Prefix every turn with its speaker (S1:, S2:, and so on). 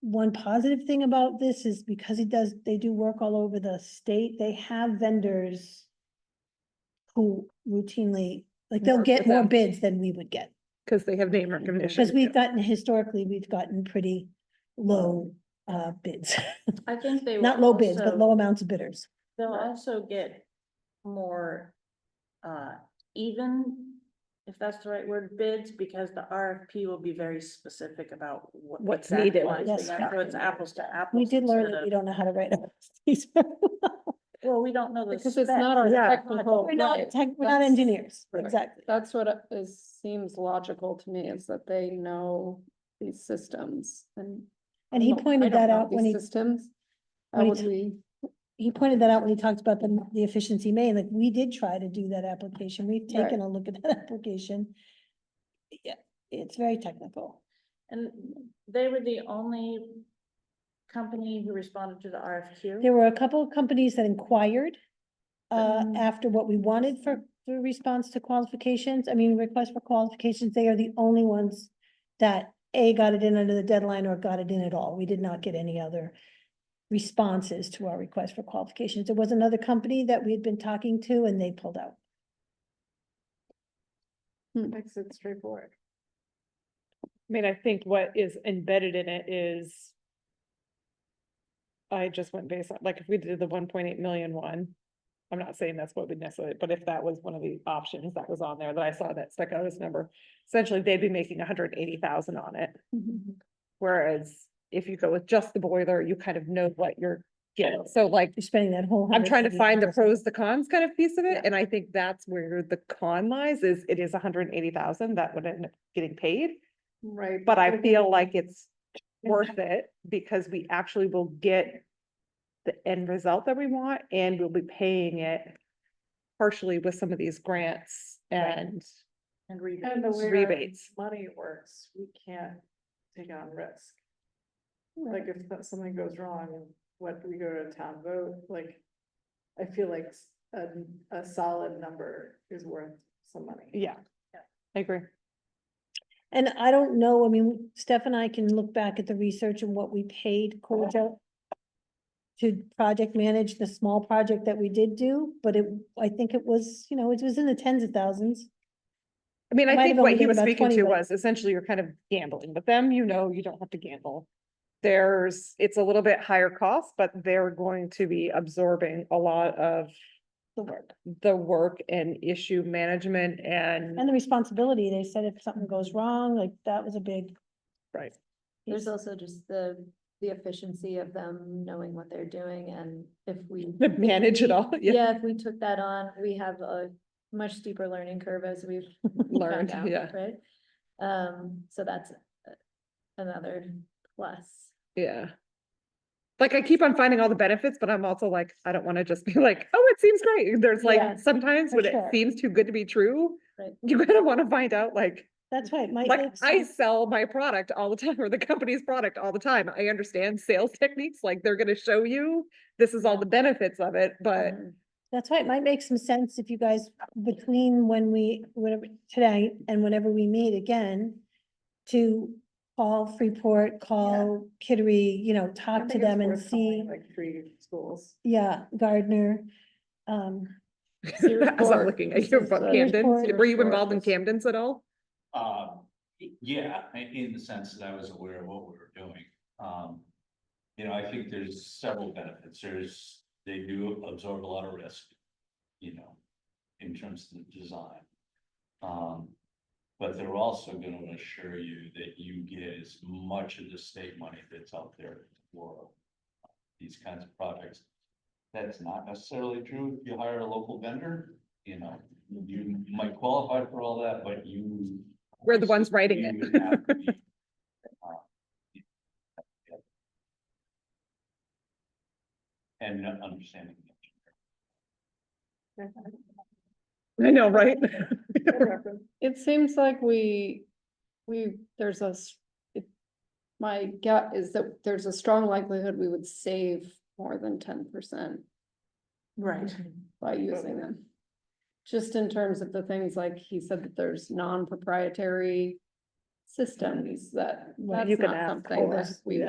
S1: one positive thing about this is because he does, they do work all over the state, they have vendors who routinely, like, they'll
S2: Work
S1: get
S2: with
S1: more
S2: them.
S1: bids than we would get.
S2: Cause they have name recognition.
S1: Because we've gotten, historically, we've gotten pretty low uh bids,
S3: I think they.
S1: not
S3: will
S1: low bids, but
S3: also-
S1: low amounts of bidders.
S3: They'll also get more, uh, even, if that's the right word, bids, because the RFP will be very specific about what.
S2: What's
S3: exactly
S2: needed.
S3: is
S1: Yes.
S3: there. So it's apples to apples.
S1: We did learn
S3: instead
S1: that
S3: of-
S1: we don't know how to write up. these.
S3: Well, we don't know the.
S4: Because it's not our
S3: specs.
S2: Yeah.
S4: technical,
S1: We're not,
S4: right.
S1: tech- we're not
S4: That's-
S1: engineers,
S4: Right.
S1: exactly.
S4: that's what it is, seems logical to me, is that they know these systems and.
S1: And he
S4: I don't- I
S1: pointed
S4: don't
S1: that
S4: know
S1: out when
S4: these
S1: he,
S4: Systems,
S1: when
S4: how
S1: he
S4: would
S1: t-
S4: we,
S1: he pointed that out when he talked about the, the efficiency main, like, we did try to do that application, we've
S4: Right.
S1: taken a look at that application. Yeah, it's very technical.
S3: And they were the only company who responded to the RFQ.
S1: There were a couple of companies that inquired uh,
S4: Mm.
S1: after what we wanted for, for response to qualifications, I mean, request for qualifications, they are the only ones that A, got it in under the deadline or got it in at all. We did not get any other responses to our request for qualifications. There was another company that we had been talking to and they pulled out.
S4: makes it straightforward.
S2: I mean, I think what is embedded in it is. I just went based on, like, if we did the one point eight million one, I'm not saying that's what we necessarily, but if that was one of the options that was on there that I saw that stuck out as a number. Essentially, they'd be making hundred and eighty thousand on it,
S4: Mm-hmm.
S2: whereas if you go with just the boiler, you kind of know what you're getting. So like,
S1: You're spending that whole.
S2: I'm trying to find the
S1: $170,000.
S2: pros, the cons kind of piece of
S1: Yeah.
S2: it, and I think that's where the con lies, is it is hundred and eighty thousand that would end up getting paid.
S4: Right.
S2: But I
S4: we're
S2: feel like it's worth it because we actually will get the end result that we want and we'll be paying it partially with some of these grants
S3: Right.
S2: and
S3: And rebates.
S5: And the way our
S2: rebates.
S5: money works, we can't take on risk. Like if that- something goes wrong, and what, we go to a town vote, like, I feel like s- a, a solid number is worth some money.
S2: Yeah,
S3: Yeah.
S2: I agree.
S1: And I don't know, I mean, Steph and I can look back at the research and what we paid Corjo to project manage the small project that we did do, but it, I think it was, you know, it was in the tens of thousands.
S2: I mean, I
S1: Might have
S2: think
S1: only
S2: what he
S1: been
S2: was
S1: about
S2: speaking
S1: 20,
S2: to
S1: but-
S2: was essentially you're kind of gambling with them, you know, you don't have to gamble. There's, it's a little bit higher cost, but they're going to be absorbing a lot of
S1: The work.
S2: the work and issue management and.
S1: And the responsibility, they said if something goes wrong, like that was a big.
S2: Right.
S1: piece.
S6: There's also just the, the efficiency of them knowing what they're doing and if we.
S2: to manage it all, yeah,
S6: Yeah, if we took that on, we have a much steeper learning curve as we've. found
S2: learned,
S6: out,
S2: yeah,
S6: Right? Um, so that's uh, another plus.
S2: yeah. Like I keep on finding all the benefits, but I'm also like, I don't wanna just be like, oh, it seems great, there's
S1: Yeah,
S2: like, sometimes
S1: for
S2: when it
S1: sure.
S2: seems too good to be true.
S6: Right.
S2: You kind of wanna find out like,
S1: That's why it might.
S2: like
S1: make
S2: I
S1: sense.
S2: sell my product all the time or the company's product all the time. I understand sales techniques, like they're gonna show you, this is all the benefits of it, but
S6: Mhm.
S1: That's why it might make some sense if you guys, between when we, whatever, tonight and whenever we meet again, to call Freeport, call Kittery, you know,
S5: I
S1: talk to
S5: think it's
S1: them and
S5: worth calling,
S1: see,
S5: Like three schools.
S1: yeah, Gardner. Um,
S2: as I'm looking at you about
S1: Sears
S2: Camden,
S1: Ford.
S2: were you involved in
S6: Sears Ford.
S2: Camden's at all?
S7: Uh, y- yeah, i- in the sense that I was aware of what we were doing. Um, you know, I think there's several benefits. There's, they do absorb a lot of risk, you know, in terms of the design. Um, but they're also gonna assure you that you get as much of the state money that's out there for these kinds of projects. That's not necessarily true if you hire a local vendor, you know, you might qualify for all that, but you
S2: We're the ones writing
S7: you
S2: it.
S7: would have to be, uh, And not understanding. the engineer.
S2: I know, right?
S4: It seems like we, we, there's a, s- it- my gut is that there's a strong likelihood we would save more than ten percent
S3: Right.
S4: by using them. Just in terms of the things like he said that there's non-proprietary systems that
S2: Right.
S4: that's
S2: You can
S4: not
S2: ask
S4: something that
S2: for,
S4: we
S2: yeah.